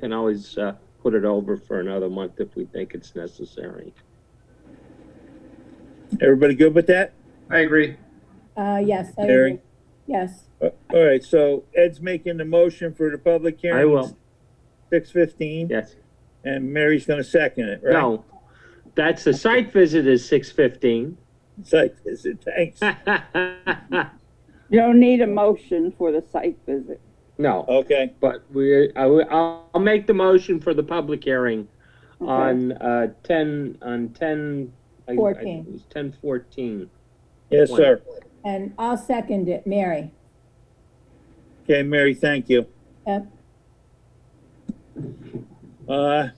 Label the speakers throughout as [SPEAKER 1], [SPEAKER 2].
[SPEAKER 1] can always uh, put it over for another month if we think it's necessary.
[SPEAKER 2] Everybody good with that?
[SPEAKER 3] I agree.
[SPEAKER 4] Uh, yes, I
[SPEAKER 2] Mary?
[SPEAKER 4] agree. Yes,
[SPEAKER 2] Uh, All right, so Ed's making the motion for the public hearing.
[SPEAKER 1] I will,
[SPEAKER 2] Six fifteen,
[SPEAKER 1] yes.
[SPEAKER 2] and Mary's gonna second it, right?
[SPEAKER 1] No, that's the site visit is six fifteen.
[SPEAKER 2] Site visit, thanks.
[SPEAKER 1] Uh.
[SPEAKER 5] You don't need a motion for the site visit.
[SPEAKER 1] No,
[SPEAKER 2] Okay,
[SPEAKER 1] but we, I, will- I'll, I'll make the motion for the public hearing
[SPEAKER 5] Okay.
[SPEAKER 1] on, uh, ten, on ten. I- I-
[SPEAKER 4] Fourteen.
[SPEAKER 1] It was ten fourteen.
[SPEAKER 2] yes, sir.
[SPEAKER 4] and I'll second it, Mary.
[SPEAKER 2] Okay, Mary, thank you.
[SPEAKER 4] Yep.
[SPEAKER 2] Uh,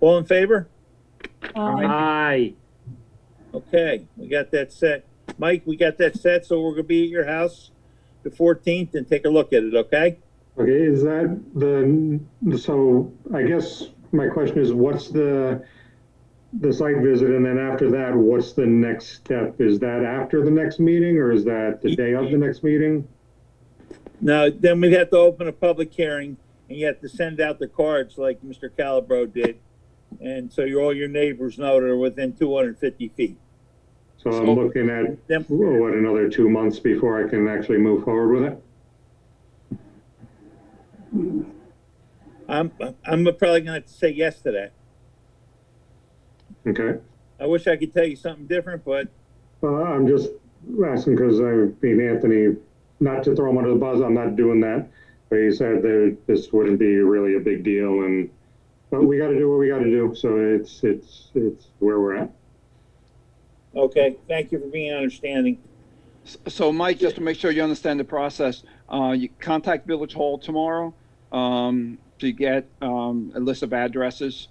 [SPEAKER 2] all in favor?
[SPEAKER 4] Um,
[SPEAKER 1] Aye.
[SPEAKER 2] Okay, we got that set. Mike, we got that set, so we're gonna be at your house the fourteenth and take a look at it, okay?
[SPEAKER 6] Okay, is that the, so I guess my question is, what's the, the site visit, and then after that, what's the next step? Is that after the next meeting, or is that the day of the next meeting?
[SPEAKER 2] Now, then we have to open a public hearing, and you have to send out the cards like Mr. Calabro did. And so your, all your neighbors know they're within two hundred and fifty feet.
[SPEAKER 6] So I'm looking at, oh,
[SPEAKER 2] Then,
[SPEAKER 6] what, another two months before I can actually move forward with it?
[SPEAKER 2] I'm, I'm probably gonna have to say yes to that.
[SPEAKER 6] Okay,
[SPEAKER 2] I wish I could tell you something different, but
[SPEAKER 6] uh, I'm just asking because I mean, Anthony, not to throw him under the bus, I'm not doing that. But he said that this wouldn't be really a big deal and, but we gotta do what we gotta do, so it's, it's, it's where we're at.
[SPEAKER 2] Okay, thank you for being understanding.
[SPEAKER 7] S- So Mike, just to make sure you understand the process, uh, you contact Village Hall tomorrow, um, to get, um, a list of addresses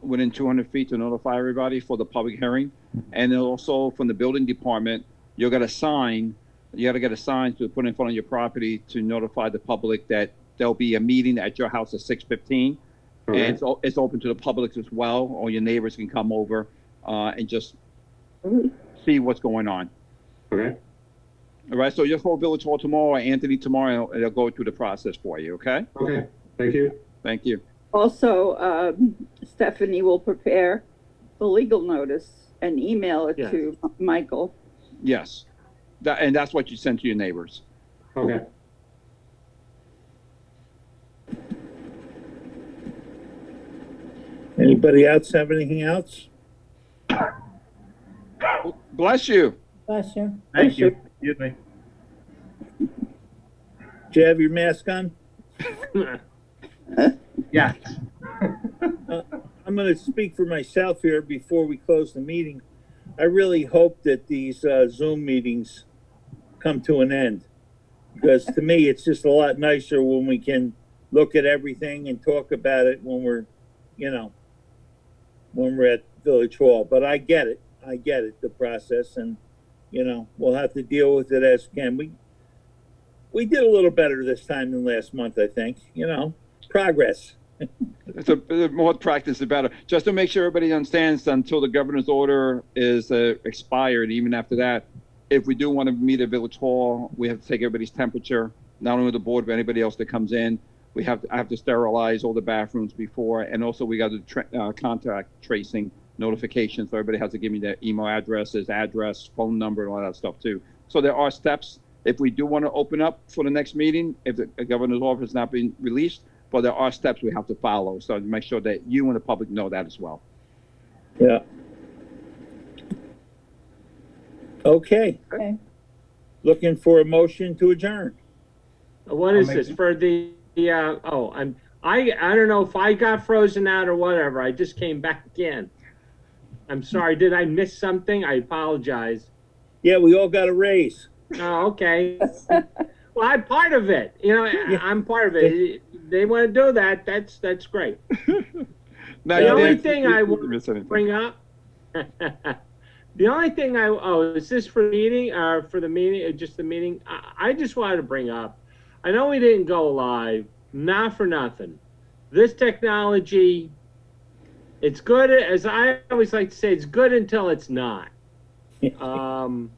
[SPEAKER 7] within two hundred feet to notify everybody for the public hearing. And then also from the building department, you'll get a sign, you gotta get a sign to put in front of your property to notify the public that there'll be a meeting at your house at six fifteen. And
[SPEAKER 6] Okay.
[SPEAKER 7] it's, o- it's open to the public as well, all your neighbors can come over, uh, and just see what's going on.
[SPEAKER 6] Okay,
[SPEAKER 7] All right, so just call Village Hall tomorrow, Anthony tomorrow, and they'll go through the process for you, okay?
[SPEAKER 6] okay, thank you.
[SPEAKER 7] Thank you.
[SPEAKER 5] Also, um, Stephanie will prepare the legal notice and email it
[SPEAKER 1] Yes.
[SPEAKER 5] to M- Michael.
[SPEAKER 7] Yes. That, and that's what you send to your neighbors.
[SPEAKER 6] Okay,
[SPEAKER 2] Anybody else have anything else?
[SPEAKER 7] Bless you.
[SPEAKER 4] bless you.
[SPEAKER 3] Thank you. Excuse me.
[SPEAKER 2] Do you have your mask on?
[SPEAKER 3] Yeah.
[SPEAKER 2] Uh, I'm gonna speak for myself here before we close the meeting. I really hope that these uh, Zoom meetings come to an end. Because to me, it's just a lot nicer when we can look at everything and talk about it when we're, you know, when we're at Village Hall. But I get it. I get it, the process. And, you know, we'll have to deal with it as can. We, we did a little better this time than last month, I think, you know, progress.
[SPEAKER 7] The, the more practice, the better. Just to make sure everybody understands, until the governor's order is uh, expired, even after that, if we do want to meet at Village Hall, we have to take everybody's temperature, not only the board, but anybody else that comes in. We have, I have to sterilize all the bathrooms before, and also we got to tra- uh, contact tracing notifications. So everybody has to give me their email addresses, address, phone number, and all that stuff too. So there are steps. If we do want to open up for the next meeting, if the governor's order has not been released, but there are steps we have to follow. So to make sure that you and the public know that as well.
[SPEAKER 2] Yeah. Okay.
[SPEAKER 4] Okay.
[SPEAKER 2] Looking for a motion to adjourn.
[SPEAKER 1] What is
[SPEAKER 3] make
[SPEAKER 1] this
[SPEAKER 3] it.
[SPEAKER 1] for the, the, uh, oh, I'm, I, I don't know if I got frozen out or whatever. I just came back in. I'm sorry, did I miss something? I apologize.
[SPEAKER 2] Yeah, we all got a raise.
[SPEAKER 1] Oh, okay. Well, I'm part of it. You know, I-
[SPEAKER 2] Yeah.
[SPEAKER 1] I'm part of it. They want to do that. That's, that's great.
[SPEAKER 7] Now,
[SPEAKER 1] The
[SPEAKER 7] you
[SPEAKER 1] only
[SPEAKER 7] didn't-
[SPEAKER 1] thing
[SPEAKER 7] you
[SPEAKER 1] I
[SPEAKER 7] didn't
[SPEAKER 1] would
[SPEAKER 7] miss anything.
[SPEAKER 1] Bring up. The only thing I, oh, is this for the meeting, or for the meeting, or just the meeting? I, I just wanted to bring up, I know we didn't go live, not for nothing. This technology, it's good, as I always like to say, it's good until it's not. Um,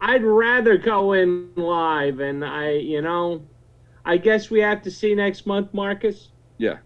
[SPEAKER 1] I'd rather go in live and I, you know, I guess we have to see next month, Marcus?
[SPEAKER 7] Yeah.